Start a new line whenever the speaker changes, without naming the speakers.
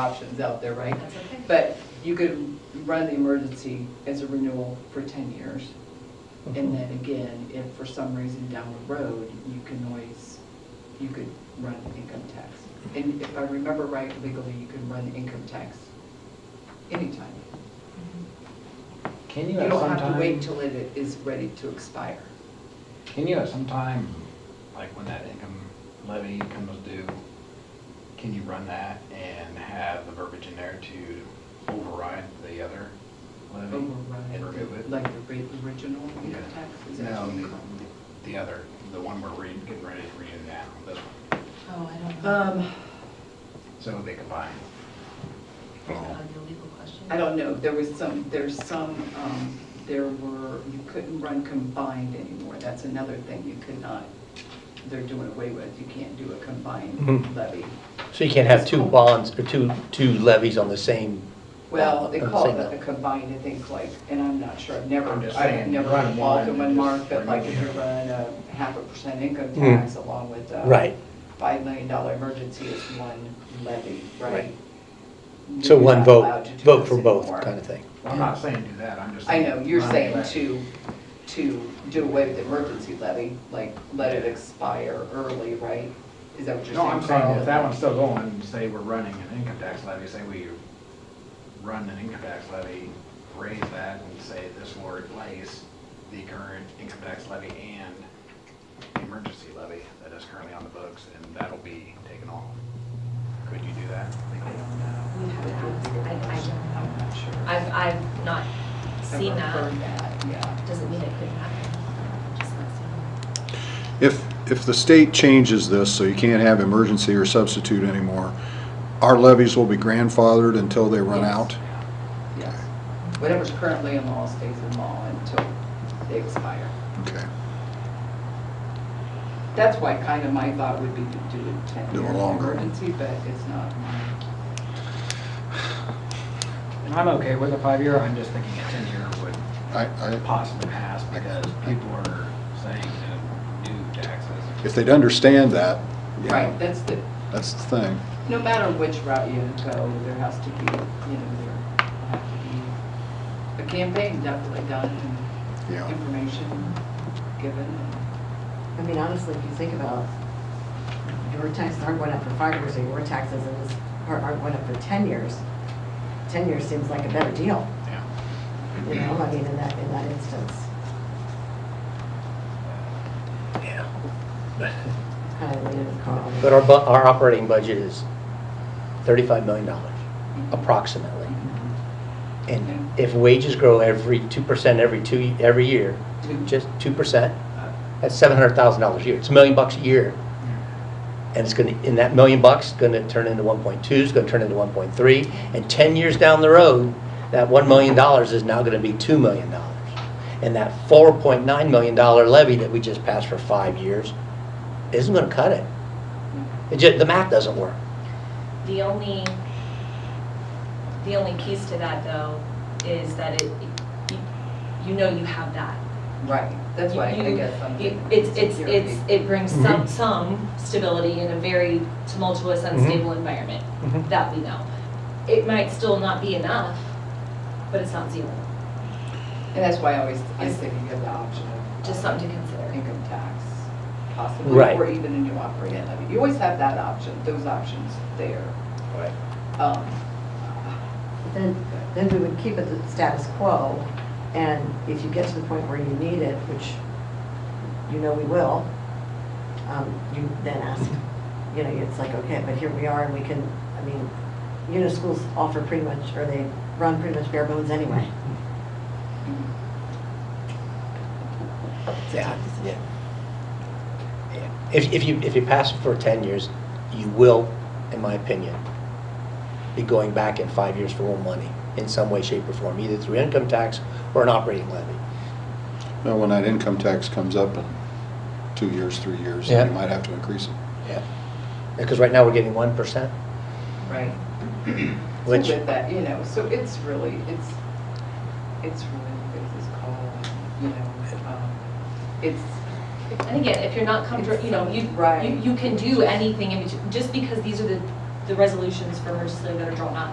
options out there, right?
That's okay.
But you could run the emergency as a renewal for 10 years. And then again, if for some reason down the road, you can always, you could run income tax. And if I remember right legally, you can run income tax anytime.
Can
You
you at
don't
some
have to wait
time,
till it is ready to expire.
can you at some time, like when that income levy comes due, can you run that and have the verbiage in there to override the other levy?
Override,
And remove it?
like the ri- original income
Yeah.
tax. Is that
No,
what you
the-
call it?
the other, the one we're reading, getting ready to read now, this one.
Oh, I don't know.
Um,
So they combine.
Is that a legal question?
I don't know, there was some, there's some, um, there were, you couldn't run combined anymore, that's another thing you could not, they're doing away with, you can't do a combined
Mhm.
levy.
So you can't have two bonds or two, two levies on the same,
Well, they
I'm
call it
saying
a combined, I think, like, and I'm not sure, I've never,
I'm just
I've
saying,
never
run
involved in
one and
one
just
mark, but like if
remove
you
the other.
run a half a percent income
Mm.
tax along with a
Right.
five million dollar emergency is one levy, right?
Right. so
You're
one
not allowed
vote,
to do
vote
those
for both
anymore.
kind of thing.
I'm not saying do that, I'm just.
I know, you're
run
saying
that.
to, to do away with the emergency levy, like, let it expire early, right? Is that what you're saying?
No, I'm saying
Carl?
if that one's still going, say we're running an income tax levy, say we run an income tax levy, raise that and say this will replace the current income tax levy and the emergency levy that is currently on the books and that'll be taken off. Could you do that?
I don't know.
We have to ask. I, I don't know.
I'm not sure.
I've, I've not seen
Never
that.
heard that, yeah.
Doesn't mean it couldn't happen. Just not seen
If, if the state changes this, so you can't have emergency or substitute anymore, our levies will be grandfathered until they run
Yes.
out?
Yes. Whatever's currently in law stays in law until they expire.
Okay,
That's why kind of my thought would be to do a
Do a
ten-year
longer.
emergency, but it's not mine.
And I'm okay with a five-year, I'm just thinking a ten-year would
I, I,
possibly pass because people are saying to do taxes.
if they'd understand that, you know,
Right, that's the,
that's the thing.
no matter which route you go, there has to be, you know, there have to be a campaign definitely done and
Yeah.
information given. and-
I mean, honestly, if you think about, it, your taxes aren't going up for five years, or your taxes in this part aren't going up for 10 years, 10 years seems like a better deal,
Yeah.
you know, I mean, in that, in that instance. Yeah. Kind of leaning with Carl.
But our, bu- our operating budget is $35 million approximately. And if wages grow every 2%, every two, every year,
Two.
just 2%, that's $700,000 a year. It's a million bucks a year. And it's gonna, and that million bucks is gonna turn into 1.2, it's gonna turn into 1.3. And 10 years down the road, that $1 million is now gonna be $2 million. And that $4.9 million levy that we just passed for five years isn't gonna cut it. It ju- the math doesn't work.
it. The only, the only piece to that though is that it, you- you know you have that.
Right, that's why I
You-
guess I'm.
you-
thinking
It's, it's,
security.
it's, it brings some,
Mhm.
some stability in a very tumultuous, unstable environment,
Mhm.
that we know. It might still not be enough, but it's not zero,
And that's why I always, I say you have the option of.
just something to consider.
Income tax, possibly,
Right.
or even a new operating levy. You always have that option, those options there.
Right.
Um,
But Then, then we would keep it the status quo, and if you get to the point where you need it, which you know we will, um, you then ask, you know, it's like, okay, but here we are, and we can, I mean, you know, schools offer pretty much, or they run pretty much bare bones anyway. It's a tough decision.
Yeah. If, if you, if you pass it for 10 years, you will, in my opinion, be going back in five years for more money in some way, shape, or form, either through income tax or an operating levy.
Now, when that income tax comes up in two years, three years,
Yeah.
you might have to increase it.
Yeah. Because right now, we're getting 1%,
Right. So
which,
With that, you know, so it's really, it's, it's really, what is this called, you know, um, it's,
And again, if you're not comfortable, you know, you,
Right.
you, you can do anything in between, just because these are the the resolutions for emergency levy that are drawn up.